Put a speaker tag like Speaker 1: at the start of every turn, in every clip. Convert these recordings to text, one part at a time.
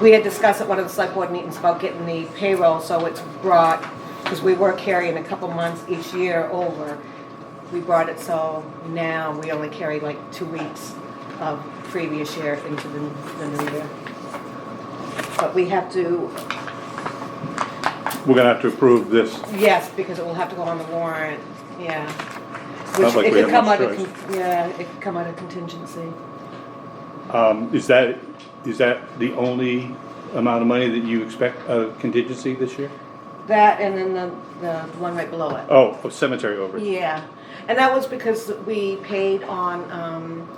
Speaker 1: we had discussed at one of the select board meetings about getting the payroll, so it's brought, because we were carrying a couple months each year over. We brought it, so now we only carry like two weeks of previous year into the, the new year. But we have to,
Speaker 2: We're gonna have to approve this.
Speaker 1: yes, because it will have to go on the warrant, yeah. Which
Speaker 2: Sounds like
Speaker 1: it
Speaker 2: we
Speaker 1: could
Speaker 2: have
Speaker 1: come
Speaker 2: much
Speaker 1: out of,
Speaker 2: choice.
Speaker 1: con- yeah, it could come out of contingency.
Speaker 2: Um, is that, is that the only amount of money that you expect uh, contingency this year?
Speaker 1: That and then the, the one right below it.
Speaker 2: Oh, oh, cemetery overage.
Speaker 1: Yeah, and that was because we paid on, um,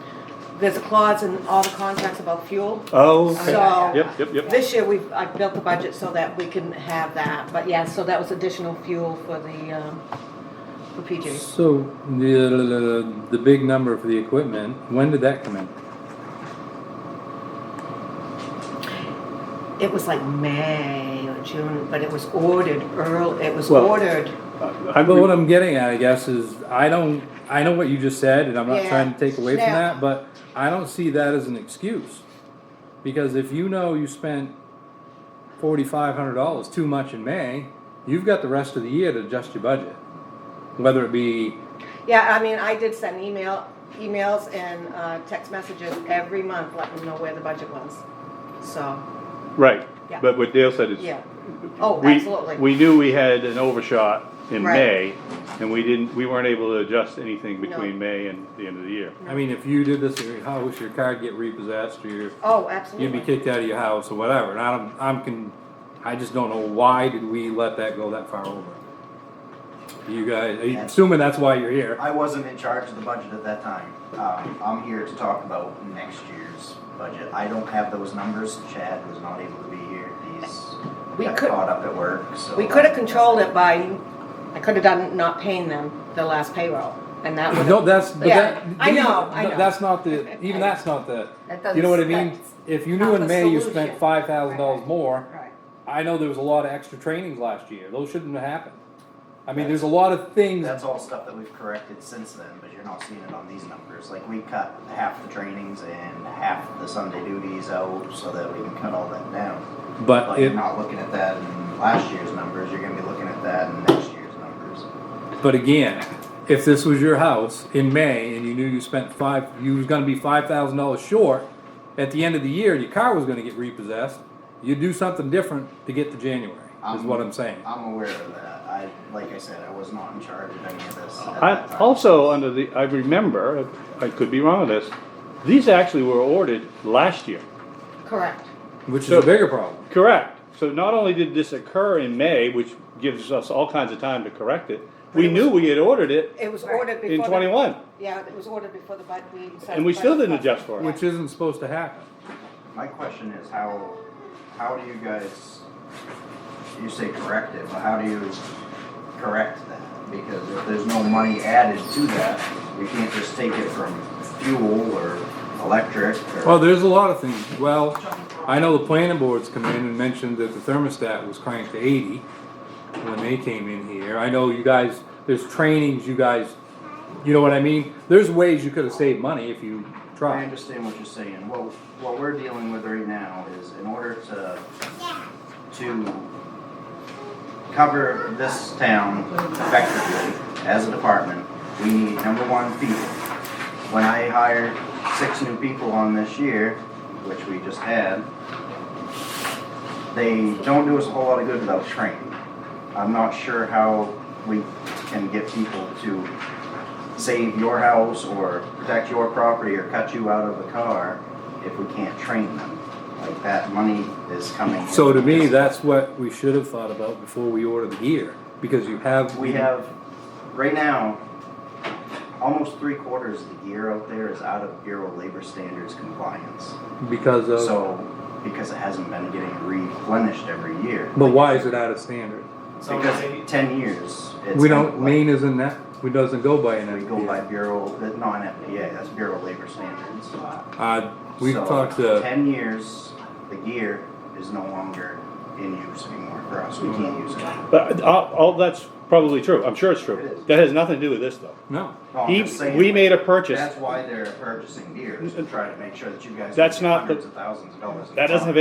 Speaker 1: there's a clause in all the contracts about fuel.
Speaker 2: Oh,
Speaker 1: So-
Speaker 2: okay. Yep, yep, yep.
Speaker 1: This year, we've, I built the budget so that we can have that, but yeah, so that was additional fuel for the, um, for PJs.
Speaker 3: So the, the big number for the equipment, when did that come in?
Speaker 1: It was like May or June, but it was ordered early, it was
Speaker 2: Well-
Speaker 1: ordered.
Speaker 2: Uh, I'm,
Speaker 3: But what I'm getting at, I guess, is I don't, I know what you just said, and I'm not
Speaker 1: Yeah.
Speaker 3: trying to take away from
Speaker 1: Yeah.
Speaker 3: that, but I don't see that as an excuse. Because if you know you spent forty-five hundred dollars too much in May, you've got the rest of the year to adjust your budget. Whether it be,
Speaker 1: Yeah, I mean, I did send email, emails and, uh, text messages every month letting them know where the budget was, so,
Speaker 2: right,
Speaker 1: Yeah.
Speaker 2: but what Dale said is.
Speaker 1: yeah. Oh,
Speaker 2: we-
Speaker 1: absolutely.
Speaker 2: We knew we had an overshot in
Speaker 1: Right.
Speaker 2: May, and we didn't, we weren't able to adjust anything
Speaker 1: No.
Speaker 2: between May and the end of the year.
Speaker 3: I mean, if you did this at your house, your car would get repossessed, or your
Speaker 1: Oh, absolutely.
Speaker 3: you'd be kicked out of your house or whatever. And I'm, I'm con, I just don't know why did we let that go that far over? You guys, I'm assuming that's why you're here.
Speaker 4: I wasn't in charge of the budget at that time. Um, I'm here to talk about next year's budget. I don't have those numbers. Chad was not able to be here. He's
Speaker 1: We
Speaker 4: got
Speaker 1: could-
Speaker 4: caught up at work, so. um,
Speaker 1: We could have controlled it by, I could have done not paying them the last payroll, and that would
Speaker 3: No,
Speaker 1: have.
Speaker 3: that's, but
Speaker 1: Yeah,
Speaker 3: that.
Speaker 1: I
Speaker 3: even-
Speaker 1: know, I know.
Speaker 3: That's not the, even that's not the,
Speaker 5: That doesn't-
Speaker 3: you know what I mean?
Speaker 5: that's
Speaker 3: If you knew
Speaker 5: not
Speaker 3: in
Speaker 5: the
Speaker 3: May you
Speaker 5: solution.
Speaker 3: spent five thousand dollars more,
Speaker 1: Right.
Speaker 3: I know there was a lot of extra trainings last year. Those shouldn't have happened. I mean, there's a lot of things,
Speaker 4: That's all stuff that we've corrected since then, but you're not seeing it on these numbers. Like, we cut half the trainings and half the Sunday duties out so that we can cut all that down.
Speaker 3: but
Speaker 4: But you're
Speaker 3: it,
Speaker 4: not looking at that in last year's numbers. You're gonna be looking at that in next year's numbers.
Speaker 3: But again, if this was your house in May and you knew you spent five, you was gonna be five thousand dollars short at the end of the year, and your car was gonna get repossessed, you'd do something different to get to January, is what I'm saying.
Speaker 4: I'm aware of that. I, like I said, I was not in charge of any of this at
Speaker 2: I,
Speaker 4: that time.
Speaker 2: also, under the, I remember, I could be wrong on this, these actually were ordered last year.
Speaker 1: Correct.
Speaker 3: Which is
Speaker 2: So-
Speaker 3: a bigger problem.
Speaker 2: Correct. So not only did this occur in May, which gives us all kinds of time to correct it, we knew we had ordered it
Speaker 1: It was ordered before.
Speaker 2: in
Speaker 1: the-
Speaker 2: twenty-one.
Speaker 1: Yeah, it was ordered before the bud, we. set
Speaker 2: And we
Speaker 1: the
Speaker 2: still
Speaker 1: budget
Speaker 2: didn't adjust for it.
Speaker 3: Which isn't supposed to happen.
Speaker 4: My question is how, how do you guys, you say correct it, but how do you correct that? Because if there's no money added to that, we can't just take it from fuel or electric
Speaker 3: Well,
Speaker 4: or.
Speaker 3: there's a lot of things. Well, I know the planning boards come in and mentioned that the thermostat was cranked to eighty when they came in here. I know you guys, there's trainings you guys, you know what I mean? There's ways you could have saved money if you
Speaker 4: I
Speaker 3: tried.
Speaker 4: understand what you're saying. What, what we're dealing with right now is in order to, to cover this town effectively as a department, we need number one people. When I hired six new people on this year, which we just had, they don't do us a whole lot of good without training. I'm not sure how we can get people to save your house or protect your property or cut you out of a car if we can't train them. Like that money is coming.
Speaker 3: So to me, that's what we should have thought about before we order the gear, because you have.
Speaker 4: We have, right now, almost three quarters of the gear out there is out of Bureau of Labor Standards compliance.
Speaker 3: Because of,
Speaker 4: So, because it hasn't been getting replenished every year.
Speaker 3: but why is it out of standard?
Speaker 4: Because ten years. it's
Speaker 3: We
Speaker 4: been
Speaker 3: don't,
Speaker 4: like-
Speaker 3: Maine isn't that, we doesn't go by an
Speaker 4: We go by
Speaker 3: NFPA.
Speaker 4: Bureau, not an FPA, that's Bureau of Labor Standards.
Speaker 3: Uh, we've
Speaker 4: So,
Speaker 3: talked to,
Speaker 4: Ten years, the gear is no longer in use anymore for us, we can't
Speaker 3: Mm-hmm.
Speaker 4: use it.
Speaker 2: But all, all that's probably true. I'm sure it's
Speaker 4: It
Speaker 2: true.
Speaker 4: is.
Speaker 2: That has nothing to do with this though.
Speaker 3: no,
Speaker 4: No, I'm
Speaker 2: He,
Speaker 4: just saying,
Speaker 2: we made a purchase.
Speaker 4: That's why they're purchasing gear, is to try to make sure that you guys.
Speaker 2: That's
Speaker 4: don't
Speaker 2: not
Speaker 4: get
Speaker 2: the-
Speaker 4: Hundreds of thousands of dollars.
Speaker 2: That doesn't have